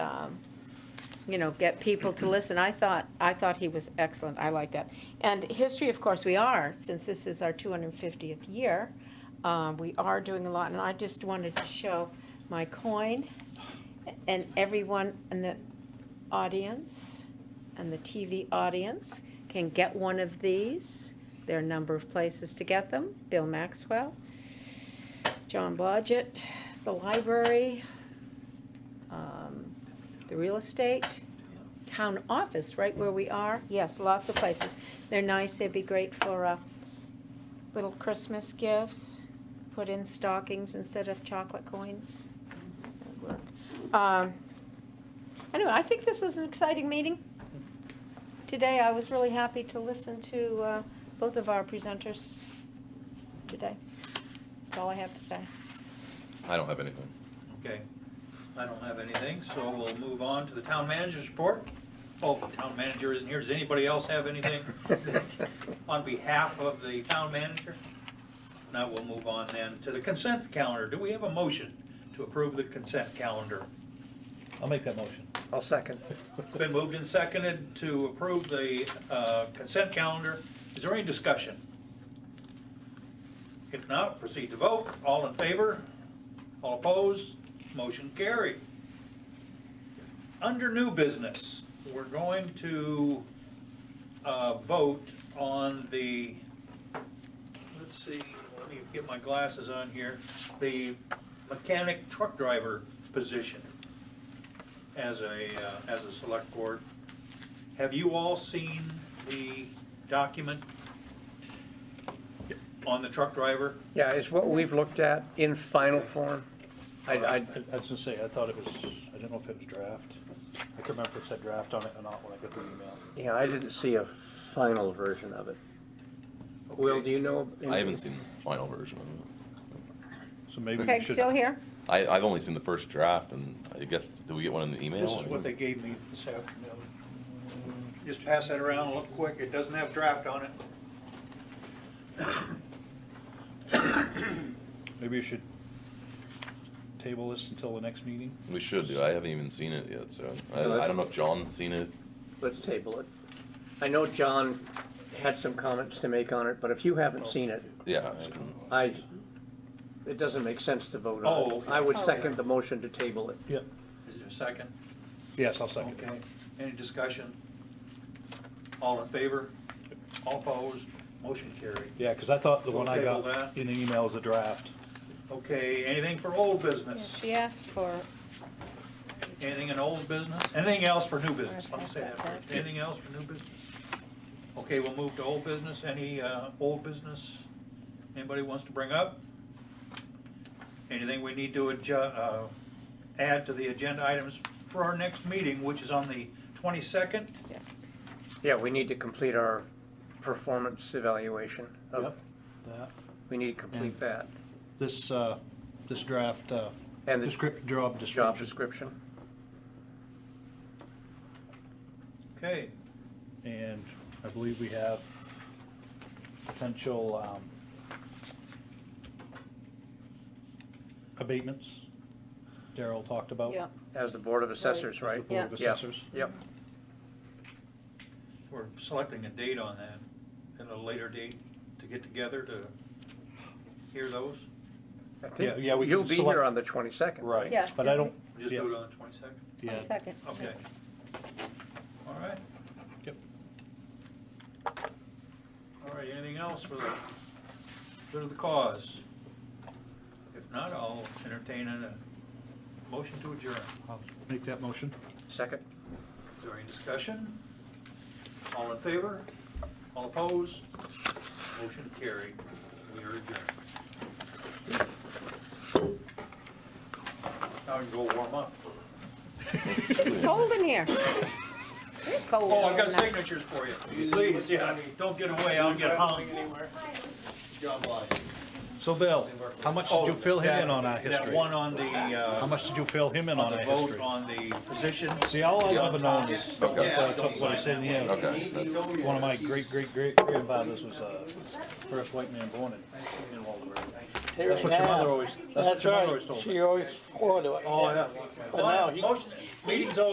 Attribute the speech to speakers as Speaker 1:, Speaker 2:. Speaker 1: um, you know, get people to listen. I thought, I thought he was excellent. I like that. And history, of course, we are, since this is our 250th year. um, We are doing a lot, and I just wanted to show my coin and everyone in the audience and the TV audience can get one of these. There are a number of places to get them. Bill Maxwell, John Blodgett, the library, um, the real estate, town office, right where we are. Yes, lots of places. They're nice. They'd be great for uh, little Christmas gifts. Put in stockings instead of chocolate coins. That'd work. Um, Anyway, I think this was an exciting meeting. Today, I was really happy to listen to uh, both of our presenters today. That's all I have to say.
Speaker 2: I don't have anything.
Speaker 3: Okay, I don't have anything, so we'll move on to the town manager's report. Oh, the town manager isn't here, does anybody else have anything on behalf of the town manager? Now we'll move on then to the consent calendar, do we have a motion to approve the consent calendar?
Speaker 4: I'll make that motion.
Speaker 5: I'll second.
Speaker 3: It's been moved and seconded to approve the uh, consent calendar, is there any discussion? If not, proceed to vote, all in favor, all opposed, motion carried. Under new business, we're going to uh, vote on the, let's see, let me get my glasses on here, the mechanic truck driver position as a, uh, as a select board. Have you all seen the document on the truck driver?
Speaker 5: Yeah, it's what we've looked at in final form. I, I,
Speaker 4: I was gonna say, I thought it was, I didn't know if it was draft. I could remember if it said draft on it or not when I got the email.
Speaker 5: yeah, I didn't see a final version of it. Will, do you know?
Speaker 2: I haven't seen the final version of it.
Speaker 4: So maybe we
Speaker 1: Peg,
Speaker 4: should.
Speaker 1: still here?
Speaker 2: I, I've only seen the first draft, and I guess, did we get one in the email?
Speaker 3: This is what they gave me this afternoon. Just pass that around, look quick, it doesn't have draft on it.
Speaker 4: Maybe you should table this until the next meeting.
Speaker 2: We should do. I haven't even seen it yet, so I,
Speaker 5: No,
Speaker 2: I don't know if John's seen it.
Speaker 5: Let's table it. I know John had some comments to make on it, but if you haven't seen it,
Speaker 2: Yeah. I can-
Speaker 5: I, it doesn't make sense to vote on.
Speaker 3: Oh,
Speaker 5: it.
Speaker 3: okay.
Speaker 5: I would second the motion to table it.
Speaker 4: Yep.
Speaker 3: Is there a second?
Speaker 4: Yes, I'll second
Speaker 3: Okay,
Speaker 4: it.
Speaker 3: any discussion? All in favor? All opposed? Motion carried.
Speaker 4: Yeah, because I thought the
Speaker 3: We'll
Speaker 4: one I
Speaker 3: table
Speaker 4: got
Speaker 3: that.
Speaker 4: in the email was a draft.
Speaker 3: Okay, anything for old
Speaker 1: Yeah,
Speaker 3: business?
Speaker 1: She asked for,
Speaker 3: Anything in old business? Anything else for new business? Let me say that
Speaker 1: Pass that
Speaker 3: first. Anything else for new business? Okay, we'll move to old business. Any, uh, old business anybody wants to bring up? Anything we need to adju, uh, add to the agenda items for our next meeting, which is on the twenty-second?
Speaker 5: Yeah, we need to complete our performance evaluation. of-
Speaker 4: Yep. That.
Speaker 5: We need to complete that.
Speaker 4: This, uh, this draft, uh,
Speaker 5: And the
Speaker 4: descrip,
Speaker 5: job
Speaker 4: job description.
Speaker 5: description.
Speaker 3: Okay,
Speaker 4: And I believe we have potential, um, abatements Daryl talked about.
Speaker 1: yeah,
Speaker 5: As the Board of Assessors,
Speaker 4: As the
Speaker 5: right?
Speaker 4: Board of
Speaker 5: Yeah. Yeah.
Speaker 4: Assessors.
Speaker 5: Yep,
Speaker 3: we're selecting a date on that, and a later date to get together to hear those.
Speaker 5: I
Speaker 4: Yeah, yeah,
Speaker 5: think
Speaker 4: we
Speaker 5: you'll
Speaker 4: can
Speaker 5: be
Speaker 4: select-
Speaker 5: here on the 22nd.
Speaker 4: Right.
Speaker 1: Yeah.
Speaker 4: But I don't.
Speaker 3: Just
Speaker 4: yeah,
Speaker 3: do it on the twenty-second?
Speaker 4: yeah.
Speaker 1: second.
Speaker 3: Okay. All right.
Speaker 4: Yep.
Speaker 3: All right, anything else for the, good of the cause? If not, I'll entertain a motion to adjourn.
Speaker 4: I'll Make that motion.
Speaker 5: Second?
Speaker 3: Is there any discussion? All in favor? All opposed? Motion carried. We are adjourned. Now we can go warm up.
Speaker 1: It's cold in here. It's cold.
Speaker 3: Oh, I've got
Speaker 1: in here.
Speaker 3: signatures for you. Please, yeah, don't get away, I'll get hung. John Bly.
Speaker 4: So Bill, how much did you fill him in on
Speaker 3: Oh,
Speaker 4: our
Speaker 3: That
Speaker 4: history?
Speaker 3: one on the,
Speaker 4: How
Speaker 3: uh,
Speaker 4: much did you fill him in
Speaker 3: on
Speaker 4: on
Speaker 3: the
Speaker 4: our
Speaker 3: vote
Speaker 4: history?
Speaker 3: on the position.
Speaker 4: See, all I've ever known is what
Speaker 2: Okay.
Speaker 4: I took, what I said in here.
Speaker 2: Okay, that's,
Speaker 4: One of my great, great, great grandfathers was, uh, first white man born in, in Waldorf. That's what your mother always, that's what
Speaker 6: That's
Speaker 4: your mother always
Speaker 6: right,
Speaker 4: told me.
Speaker 6: she always swore to it.
Speaker 3: Oh, yeah.
Speaker 6: now he-
Speaker 3: Motion, meeting's over.